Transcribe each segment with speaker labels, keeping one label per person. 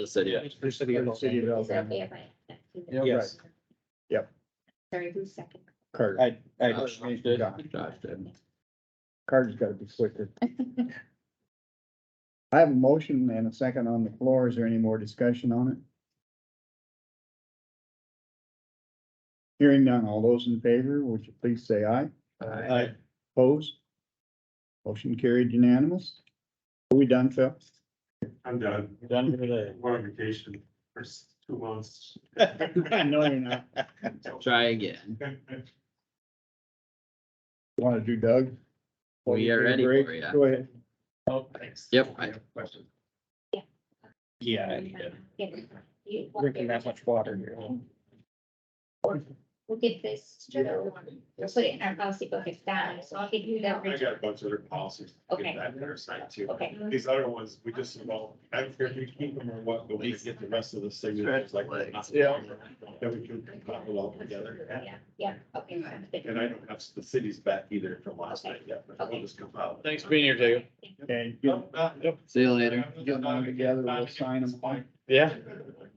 Speaker 1: the city.
Speaker 2: It's for city. of
Speaker 3: City of
Speaker 2: Elgin.
Speaker 3: Elgin.
Speaker 4: Is it okay if I?
Speaker 3: Yeah,
Speaker 2: Yes.
Speaker 4: right.
Speaker 3: Yep.
Speaker 4: Sorry, who's second?
Speaker 3: Carter.
Speaker 1: I,
Speaker 3: I
Speaker 1: Josh
Speaker 3: just
Speaker 1: did.
Speaker 3: made-
Speaker 1: Josh did.
Speaker 3: Carter's gotta be quicker. I have a motion and a second on the floor. Is there any more discussion on it? Hearing none, all those in favor, would you please say aye?
Speaker 1: Aye.
Speaker 3: Opposed? Motion carried unanimous. Are we done, Phil?
Speaker 5: I'm done.
Speaker 2: Done for today.
Speaker 5: I'm on vacation for s- two months.
Speaker 3: No, you're not.
Speaker 1: Try again.
Speaker 3: Want to do Doug?
Speaker 1: We are ready
Speaker 3: Break?
Speaker 1: for ya.
Speaker 3: Go ahead.
Speaker 2: Oh, thanks.
Speaker 1: Yep, I-
Speaker 5: Question.
Speaker 2: Yeah.
Speaker 4: You-
Speaker 2: Drinking that much water here.
Speaker 4: We'll get this, to the- we'll put it in our policy book, it's down, so I'll give you that.
Speaker 5: I got a bunch of other policies. to get
Speaker 4: Okay.
Speaker 5: That there signed too.
Speaker 4: Okay,
Speaker 5: These other ones, we just, well, I don't care if you keep them or what, but we get the rest of the signatures like. that.
Speaker 2: Yeah.
Speaker 5: That we can compile it all together.
Speaker 4: yeah, yeah, okay. sounds good.
Speaker 5: And I don't have the cities back either from last night yet, but we'll
Speaker 4: Okay.
Speaker 5: just compile. it.
Speaker 2: Thanks for being here, Taylor.
Speaker 3: Okay, get
Speaker 5: Nope, not- nope.
Speaker 1: See you later.
Speaker 3: get them together, we'll sign them.
Speaker 2: Yeah,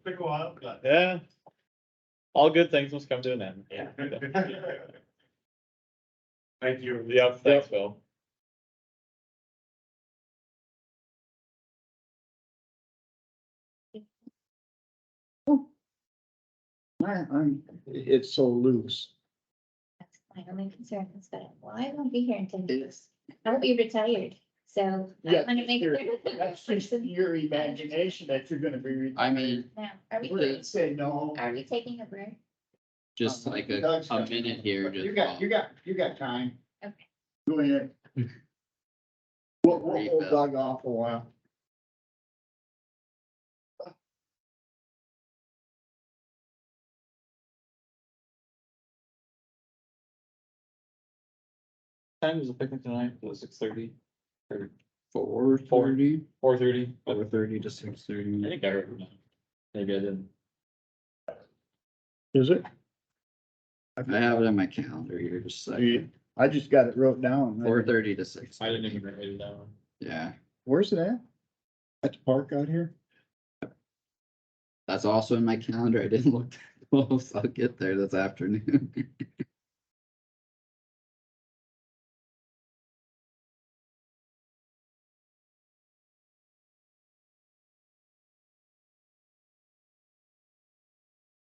Speaker 5: Took a while, but.
Speaker 2: yeah. All good things must come to an end.
Speaker 5: Yeah. Thank you.
Speaker 2: Yep, thanks, Phil.
Speaker 3: I, I'm, it's so loose.
Speaker 4: That's My only concern is that, well, I won't be here in ten days. I won't be retired, so I
Speaker 3: Yeah,
Speaker 4: want to make it.
Speaker 3: That's just your imagination that you're gonna be.
Speaker 1: I mean,
Speaker 4: Now, are we,
Speaker 3: We'd Say no.
Speaker 4: are we taking a break?
Speaker 1: just like a,
Speaker 3: Doug's
Speaker 1: a
Speaker 3: got-
Speaker 1: minute here,
Speaker 3: You
Speaker 1: just.
Speaker 3: got, you
Speaker 1: while-
Speaker 3: got, you got time.
Speaker 4: Okay.
Speaker 3: Go ahead. We'll, we'll hold Doug off a while.
Speaker 2: Time is the picnic tonight, six thirty,
Speaker 1: Four thirty,
Speaker 2: four thirty. I
Speaker 1: four thirty to six thirty.
Speaker 2: think I heard. that. Maybe I didn't.
Speaker 3: Is it?
Speaker 1: I have it on my calendar here, just like
Speaker 3: I just got it wrote down.
Speaker 1: four thirty to six.
Speaker 2: I didn't even write it down.
Speaker 1: Yeah,
Speaker 3: Where's it at? At the park out here?
Speaker 1: that's also in my calendar. I didn't look that close. I'll get there this afternoon.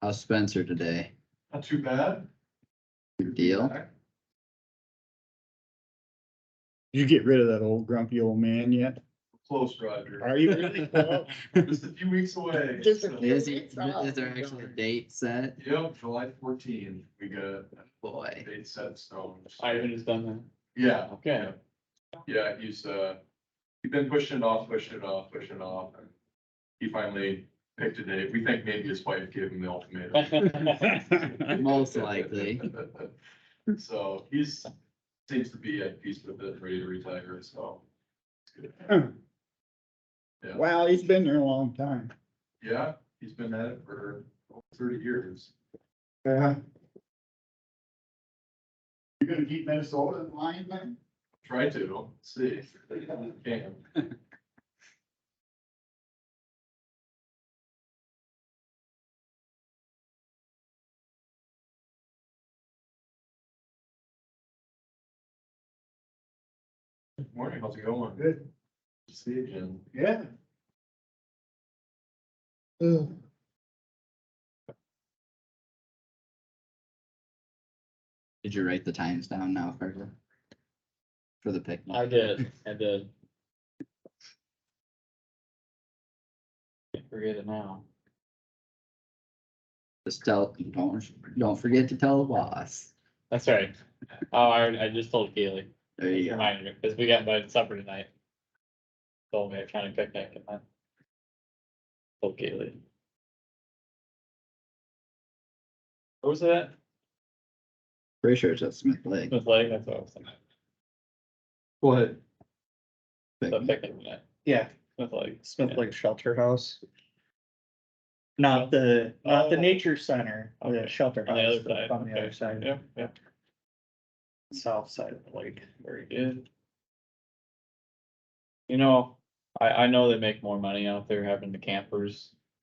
Speaker 1: How's Spencer today?
Speaker 5: Not too bad.
Speaker 1: Good Deal?
Speaker 3: Did you get rid of that old grumpy old man yet?
Speaker 5: Close, Roger.
Speaker 3: Are you really? Well,
Speaker 5: Just a few weeks away.
Speaker 3: Just a
Speaker 5: so-
Speaker 3: few.
Speaker 1: Is it, is there actually a date set?
Speaker 5: Yep, July fourteen, we got a
Speaker 1: Boy,
Speaker 5: date set, so.
Speaker 2: Ivan has done that.
Speaker 5: Yeah.
Speaker 2: Okay.
Speaker 5: Yeah, he's, uh, he's been pushing it off, pushing it off, pushing it off. and He finally picked a date. We think maybe his wife gave him the ultimatum.
Speaker 1: Most likely.
Speaker 5: So he's, seems to be at peace with it, ready to retire, so. Yeah.
Speaker 3: Wow, he's been there a long time.
Speaker 5: Yeah, he's been at it for over thirty years.
Speaker 3: Yeah. You're gonna keep Minnesota in line then?
Speaker 5: Try to, see. Can. Morning, how's it going?
Speaker 3: Good.
Speaker 5: Good to See you, Jim.
Speaker 3: Yeah. Ugh.
Speaker 1: did you write the times down now for the? For the picnic?
Speaker 2: I did, I did. Can't Forget it now.
Speaker 1: Just tell, don't, don't forget to tell the boss.
Speaker 2: That's right. Oh, I, already- I just told Kaylee.
Speaker 1: There you go.
Speaker 2: Reminder, because we got invited to supper tonight. Told me a county picnic and then. Told Kaylee. What was that?
Speaker 1: Pretty sure it's at Smith Lake.
Speaker 2: Smith Lake, that's what I was thinking.
Speaker 6: Go ahead.
Speaker 2: The
Speaker 1: picnic.
Speaker 2: picnic tonight,
Speaker 6: Yeah,
Speaker 2: Smith Lake.
Speaker 6: Smith
Speaker 2: Yeah.
Speaker 6: Lake Shelter House. Not the, not the
Speaker 2: Oh.
Speaker 6: nature center, the
Speaker 2: Okay.
Speaker 6: shelter
Speaker 2: On the
Speaker 6: house
Speaker 2: other
Speaker 6: that's
Speaker 2: side,
Speaker 6: on the
Speaker 2: okay.
Speaker 6: other side,
Speaker 2: Yeah, yeah,
Speaker 6: south side of the lake.
Speaker 2: very good. You know, I, I know they make more money out there having the campers